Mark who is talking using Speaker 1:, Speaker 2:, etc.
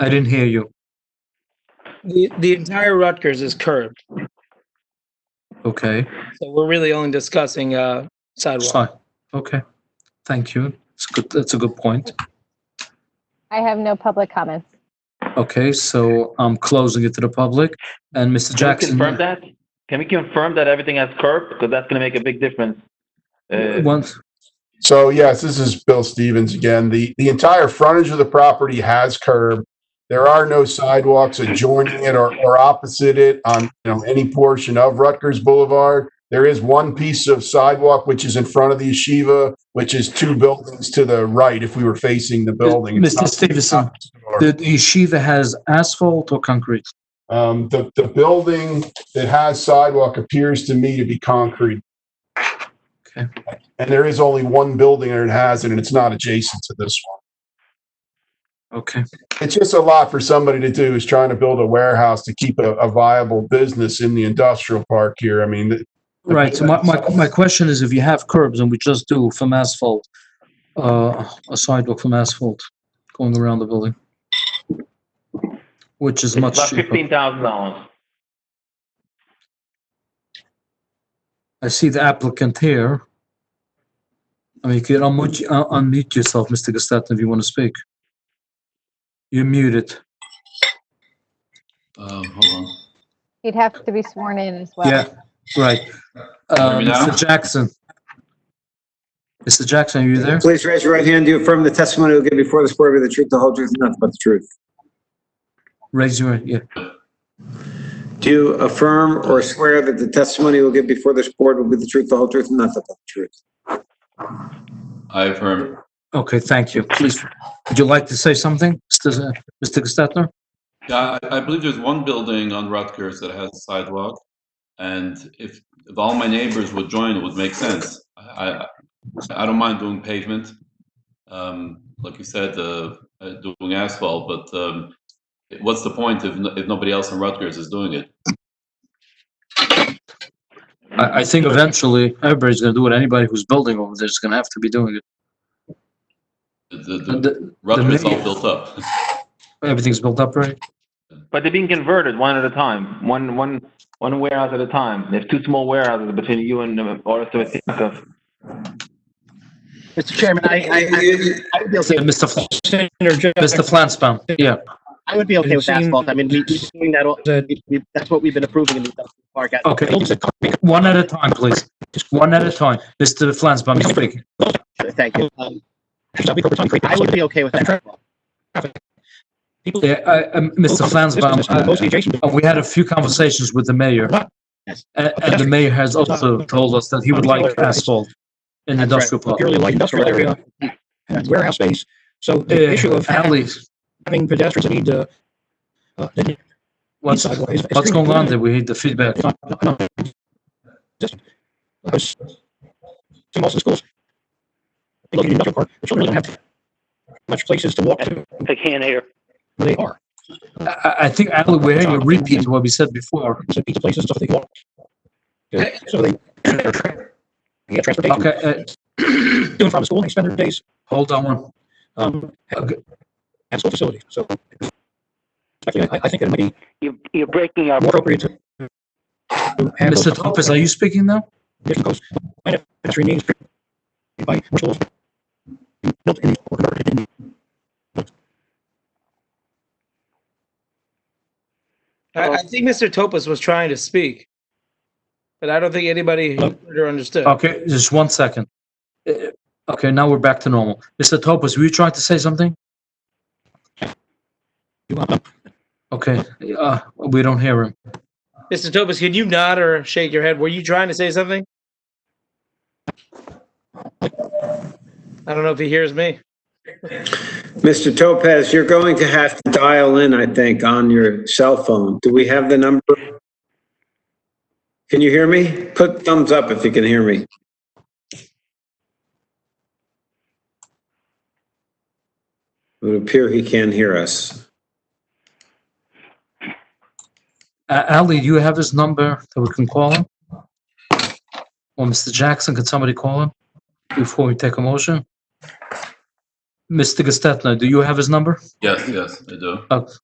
Speaker 1: I didn't hear you.
Speaker 2: The, the entire Rutgers is curved,
Speaker 1: Okay.
Speaker 2: so we're really only discussing uh, sidewalk.
Speaker 1: Fine. Okay. Thank you. It's good. That's a good point.
Speaker 3: I have no public comments.
Speaker 1: Okay, so I'm closing it to the public. And Mr.
Speaker 4: Can we
Speaker 1: Jackson,
Speaker 4: confirm that? Can we confirm that everything has curb? Because that's going to make a big difference. Uh,
Speaker 1: once,
Speaker 5: So yes, this is Bill Stevens again. The, the entire frontage of the property has curb. There are no sidewalks adjoining it or, or opposite it on, you know, any portion of Rutgers Boulevard. There is one piece of sidewalk which is in front of the yeshiva, which is two buildings to the right if we were facing the building. It's
Speaker 1: Mr.
Speaker 5: not-
Speaker 1: Stevenson, the the yeshiva has asphalt or concrete?
Speaker 5: Um, the, the building that has sidewalk appears to me to be concrete.
Speaker 1: Okay.
Speaker 5: And there is only one building that it has, and it's not adjacent to this one.
Speaker 1: Okay,
Speaker 5: It's just a lot for somebody to do is trying to build a warehouse to keep a, a viable business in the industrial park here. I mean, th-
Speaker 1: right. So my, my, my question is if you have curbs and we just do from asphalt, uh, a sidewalk from asphalt going around the building, which is
Speaker 4: It's
Speaker 1: much
Speaker 4: about
Speaker 1: cheaper.
Speaker 4: fifteen thousand dollars.
Speaker 1: I see the applicant here. I mean, you can unmute, uh, unmute yourself, Mr. Gestatten, if you want to speak. You're muted.
Speaker 6: Um, hold on.
Speaker 3: He'd have to be sworn in as well.
Speaker 1: Yeah, right. Uh,
Speaker 6: Hear me now?
Speaker 1: Mr. Jackson. Mr. Jackson, are you there?
Speaker 7: Please raise your right hand. Do you affirm the testimony you'll give before this board will be the truth, the whole truth, and nothing but the truth?
Speaker 1: Raise your, yeah.
Speaker 7: Do you affirm or swear that the testimony you'll give before this board will be the truth, the whole truth, and nothing but the truth?
Speaker 6: I affirm.
Speaker 1: Okay, thank you. Please, would you like to say something, uh, Mr. Z- Mr. Gestetner?
Speaker 6: Yeah, I, I believe there's one building on Rutgers that has a sidewalk. And if, if all my neighbors would join, it would make sense. I, I, I don't mind doing pavement. Um, like you said, uh, uh, doing asphalt, but, um, what's the point if, no- if nobody else in Rutgers is doing it?
Speaker 1: I, I think eventually everybody's gonna do it. Anybody who's building over there is gonna have to be doing it.
Speaker 6: The- the-
Speaker 1: And
Speaker 6: the-
Speaker 1: the-
Speaker 6: Rutgers is all
Speaker 1: neighbors-
Speaker 6: built up.
Speaker 1: Everything's built up, right?
Speaker 4: But they're being converted one at a time, one, one, one warehouse at a time. There's two small warehouses between you and uh, Oris Sabatino.
Speaker 8: Mr. Chairman, I, I,
Speaker 7: I-
Speaker 8: I would be okay
Speaker 1: And Mr. Fl-
Speaker 8: with Senator
Speaker 1: Mr. Flansbaum, yeah.
Speaker 8: I would be okay with asphalt. I mean, we, we're doing that all, we- we- that's what we've been approving in the industrial park.
Speaker 1: Okay, one at a time, please. Just one at a time. Mr. Flansbaum, you speak.
Speaker 8: Thank you. Um, I would be okay with that.
Speaker 1: Yeah, I- um, Mr. Flansbaum, I- I- we had a few conversations with the mayor.
Speaker 8: Yes.
Speaker 1: And, and the mayor has also told us that he would like asphalt in the industrial park.
Speaker 9: purely light industrial area and warehouse space. So the issue
Speaker 1: Uh,
Speaker 9: of
Speaker 1: Ali,
Speaker 9: having pedestrians that need to, uh, that need
Speaker 1: what's,
Speaker 9: sidewalks is- is
Speaker 1: what's going on
Speaker 9: extremely
Speaker 1: there? We need the feedback.
Speaker 9: limited. Not- not- not- Just, because to most of the schools, they look at the industrial park, the children don't have much places to walk to where
Speaker 4: They can't hear.
Speaker 9: they are.
Speaker 1: I, I- I think, Ali, we're having a repeat of what we said before.
Speaker 9: So pizza places, and stuff they walk. to. So they, they're tra- they get transportation,
Speaker 1: Okay, uh,
Speaker 9: to and from school, they spend their days,
Speaker 1: hold on one.
Speaker 9: um, at
Speaker 1: Okay.
Speaker 9: at school facilities. So actually, I, I think it might be
Speaker 4: You're, you're breaking up.
Speaker 9: more appropriate to to have
Speaker 1: Mr.
Speaker 9: those-
Speaker 1: Topaz, are you speaking now?
Speaker 9: Mission Coast Planet Factory means by rituals built in or converted in.
Speaker 2: I, I think Mr. Topaz was trying to speak, but I don't think anybody heard or understood.
Speaker 1: Okay, just one second. Uh, Okay, now we're back to normal. Mr. Topaz, were you trying to say something?
Speaker 9: You want them.
Speaker 1: Okay, uh, we don't hear him.
Speaker 2: Mr. Topaz, can you nod or shake your head? Were you trying to say something? I don't know if he hears me.
Speaker 7: Mr. Topaz, you're going to have to dial in, I think, on your cell phone. Do we have the number? Can you hear me? Put thumbs up if you can hear me. It would appear he can hear us.
Speaker 1: Uh, Ali, do you have his number that we can call him? Or Mr. Jackson, could somebody call him before we take a motion? Mr. Gestetner, do you have his number?
Speaker 6: Yes, yes, I do.
Speaker 1: Uh,